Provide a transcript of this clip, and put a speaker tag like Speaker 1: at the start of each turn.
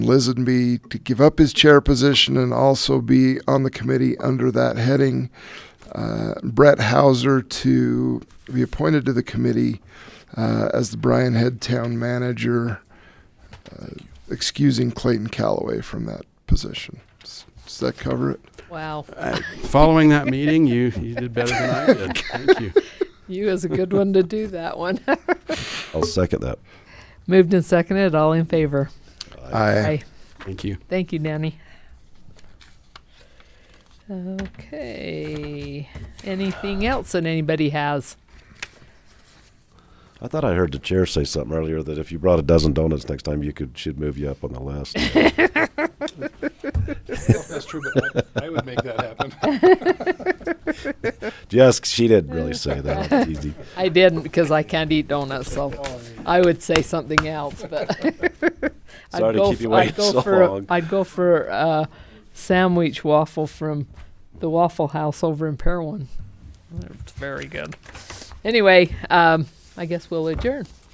Speaker 1: Lisenby to give up his chair position and also be on the committee under that heading. Uh, Brett Hauser to be appointed to the committee uh, as the Bryan Head Town Manager, uh, excusing Clayton Calloway from that position. Does does that cover it?
Speaker 2: Wow,
Speaker 3: Uh, Following that meeting, you, you did better than I did. Thank you.
Speaker 2: you was a good one to do that one.
Speaker 4: I'll second that.
Speaker 2: Moved and seconded, all in favor.
Speaker 1: Aye.
Speaker 2: Aye.
Speaker 3: Thank you.
Speaker 2: Thank you, Danny. Okay, anything else that anybody has?
Speaker 4: I thought I heard the chair say something earlier that if you brought a dozen donuts next time, you could she'd move you up on the list.
Speaker 5: That's true, but I, I would make that happen.
Speaker 4: Just she didn't really say that. It's easy.
Speaker 2: I didn't because I can't eat donuts, so I would say something else, but. I'd
Speaker 4: Sorry to
Speaker 2: go
Speaker 4: keep you
Speaker 2: f-
Speaker 4: waiting
Speaker 2: I'd go
Speaker 4: so
Speaker 2: for a-
Speaker 4: long.
Speaker 2: I'd go for a sandwich waffle from the Waffle House over in Parowan. It's very good. Anyway, um, I guess we'll adjourn.